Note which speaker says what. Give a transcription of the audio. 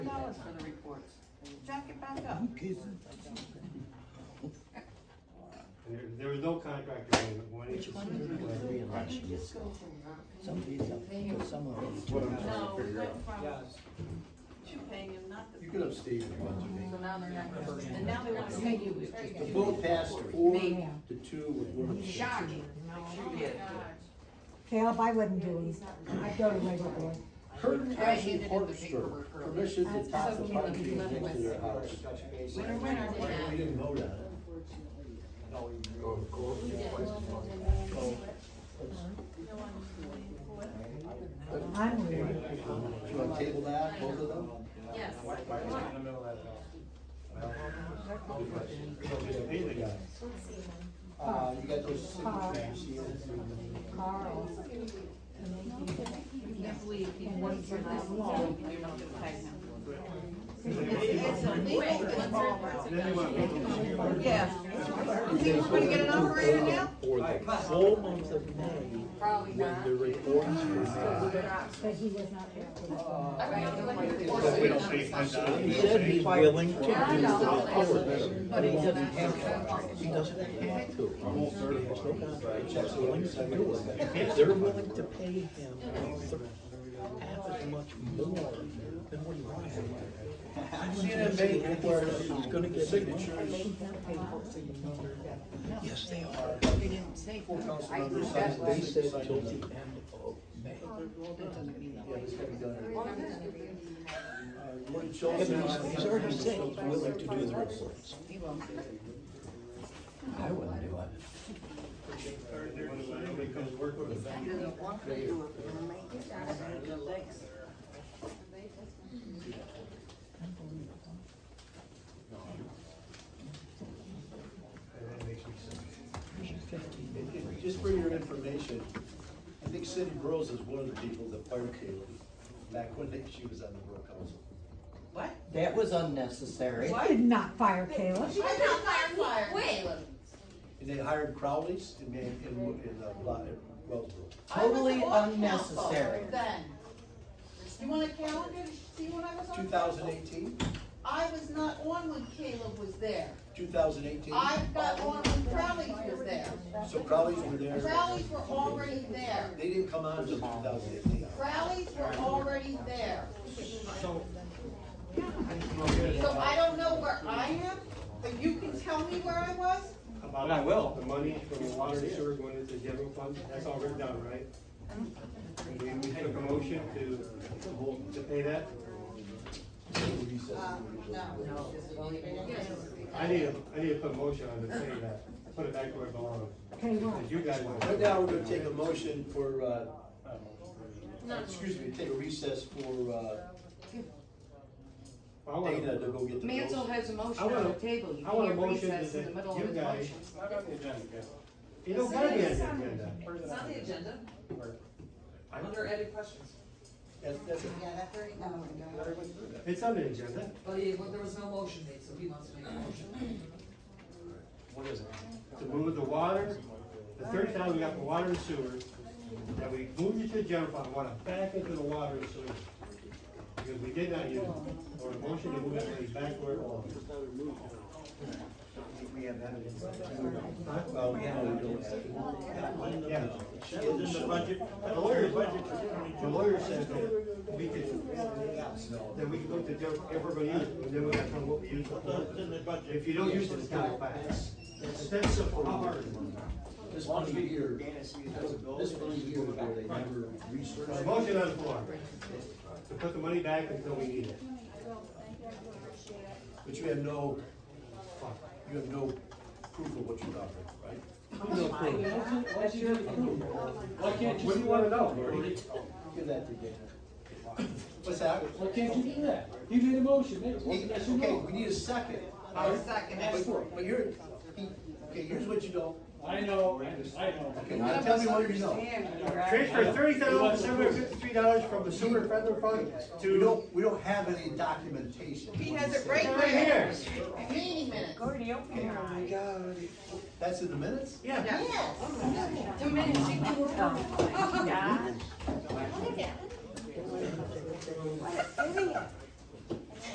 Speaker 1: those for the reports. Jack it back up.
Speaker 2: Kissing.
Speaker 3: And there, there was no contract agreement when it
Speaker 2: Which one is it gonna be
Speaker 3: was.
Speaker 2: election this time? Some of these, up, because some of them.
Speaker 4: What I'm trying
Speaker 1: No,
Speaker 4: to
Speaker 1: we
Speaker 4: figure
Speaker 1: went
Speaker 4: out.
Speaker 1: from
Speaker 5: Yes.
Speaker 1: two paying and not the.
Speaker 4: You could have Steve if you want
Speaker 1: So
Speaker 4: to.
Speaker 1: now they're not, and now they want to pay you. It's just
Speaker 4: The
Speaker 1: two
Speaker 4: vote passed
Speaker 1: reports.
Speaker 4: four
Speaker 1: Me.
Speaker 4: to two with one.
Speaker 1: Shocking.
Speaker 6: Caleb, I wouldn't do it. I'd go to labor board.
Speaker 4: Curtin
Speaker 1: I
Speaker 4: County
Speaker 1: handed in the
Speaker 4: Park Service
Speaker 1: paperwork earlier.
Speaker 4: permission to
Speaker 1: That's
Speaker 4: top the
Speaker 1: okay,
Speaker 4: park
Speaker 1: we
Speaker 4: trees
Speaker 1: left
Speaker 4: next to
Speaker 1: with-
Speaker 4: their house.
Speaker 1: Winner, winner.
Speaker 4: We didn't vote on it.
Speaker 6: I'm weird.
Speaker 4: You want to table that, both of them?
Speaker 1: Yes.
Speaker 3: Just pay the guy.
Speaker 4: Uh, you got those
Speaker 6: Carl.
Speaker 4: signatures here.
Speaker 6: Carl.
Speaker 1: You can't believe he worked for this long, and you're not gonna pay him.
Speaker 3: It's Then they want to vote on it.
Speaker 1: Yeah. You think we're gonna get an operator now?
Speaker 7: For the full month of May,
Speaker 1: Probably
Speaker 7: when the reports were made.
Speaker 6: But he was not there for this one.
Speaker 3: We don't pay ten
Speaker 7: He
Speaker 3: dollars.
Speaker 7: said he's willing to do
Speaker 1: I know.
Speaker 7: the but he doesn't have contracts, he doesn't have to.
Speaker 4: Almost certified.
Speaker 7: There's no contracts, he's willing to do it. If they're willing to pay him thir- half as much more than what he wants. I'm gonna make it where he's gonna get. Signatures. Yes, they are.
Speaker 1: They didn't say.
Speaker 4: Four council members signed
Speaker 7: They
Speaker 4: this.
Speaker 7: said till the end of May.
Speaker 4: Yeah, it's gotta be done. Uh, Lord Childs and I-
Speaker 7: He's already said he's willing to do the reports.
Speaker 1: He won't do it.
Speaker 7: I wouldn't do it.
Speaker 3: Nobody comes work with us.
Speaker 4: It- it- Just for your information, I think Cindy Burrows is one of the people that fired Kaylee back when they- she was on the borough council.
Speaker 1: What?
Speaker 2: That was unnecessary.
Speaker 6: I did not fire Caleb.
Speaker 1: I'm not fired.
Speaker 8: Wait,
Speaker 4: And they hired Crowley's in, in, in, in, uh, Bla- in Wellsboro.
Speaker 1: I was
Speaker 2: Totally
Speaker 1: on council
Speaker 2: unnecessary.
Speaker 1: Then. You want a calendar to see when I was on?
Speaker 4: Two thousand eighteen?
Speaker 1: I was not on when Caleb was there.
Speaker 4: Two thousand eighteen?
Speaker 1: I got on when Crowley was there.
Speaker 4: So Crowley's were there.
Speaker 1: Crowley's were already there.
Speaker 4: They didn't come on until two thousand eighteen.
Speaker 1: Crowley's were already there. So I don't know where I am, but you can tell me where I was?
Speaker 3: About
Speaker 5: And I will.
Speaker 3: The money from the water and sewer going into the general fund, that's all written down, right? And we- we took a motion to, to pay that.
Speaker 1: No.
Speaker 3: I need a, I need to put a motion on to pay that, put it back where it belongs.
Speaker 6: Okay, what?
Speaker 3: Because you guys. want-
Speaker 4: Right now, we're gonna take a motion for, uh, excuse me, take a recess for, uh,
Speaker 3: I want a-
Speaker 4: Dana to go get the bills.
Speaker 1: Mansell has a motion
Speaker 3: I want
Speaker 1: on the
Speaker 3: a-
Speaker 1: table, you
Speaker 3: I want a
Speaker 1: can't
Speaker 3: motion
Speaker 1: recess in the
Speaker 3: that
Speaker 1: middle of
Speaker 3: you
Speaker 1: a
Speaker 3: guys.
Speaker 1: motion.
Speaker 3: It don't gotta be on the agenda.
Speaker 9: It's on the agenda, under edit questions.
Speaker 4: That's, that's it.
Speaker 3: It's on the agenda.
Speaker 9: But he, Oh, well, there was no motion made, so he wants to make a motion.
Speaker 3: to move the water, the thirty thousand we got for water and sewer, that we moved it to the general fund, want it back into the water and sewer. Because we did not use, it, or a motion to move that money back where it belongs.
Speaker 4: Well, no, Oh, we don't have to.
Speaker 3: Yeah.
Speaker 4: It's in the budget.
Speaker 3: The lawyer, the lawyer says that we can, that we can go to general, everybody use it, and then we'll have to, what we use it for. If you don't use it, it's not back. That's, that's a problem.
Speaker 4: This one year, this one year where they never researched.
Speaker 3: There's a motion on the floor to put the money back until we need it.
Speaker 4: But you have no, you have no proof of what you're offering, right?
Speaker 5: Why can't
Speaker 3: What do you wanna know, Marty?
Speaker 4: Oh, Give that to Dana. What's that?
Speaker 5: Why can't you do that? You made a motion, that's,
Speaker 4: He-
Speaker 5: that's your
Speaker 4: Okay,
Speaker 5: vote.
Speaker 4: we need a second.
Speaker 9: I'll second
Speaker 4: But
Speaker 9: it.
Speaker 4: but here, he- okay, here's what you know.
Speaker 5: I know, I I know.
Speaker 4: Okay, now tell me what you know.
Speaker 3: Transfer thirty thousand seven hundred fifty-three dollars from the sewer federal fund
Speaker 4: We
Speaker 3: to.
Speaker 4: don't, we don't have any documentation.
Speaker 1: He has it right
Speaker 3: Right here.
Speaker 1: here. Meeting minutes.
Speaker 4: That's in the minutes?
Speaker 3: Yeah.
Speaker 1: Yes. Two minutes, you can work on it.
Speaker 8: look at it.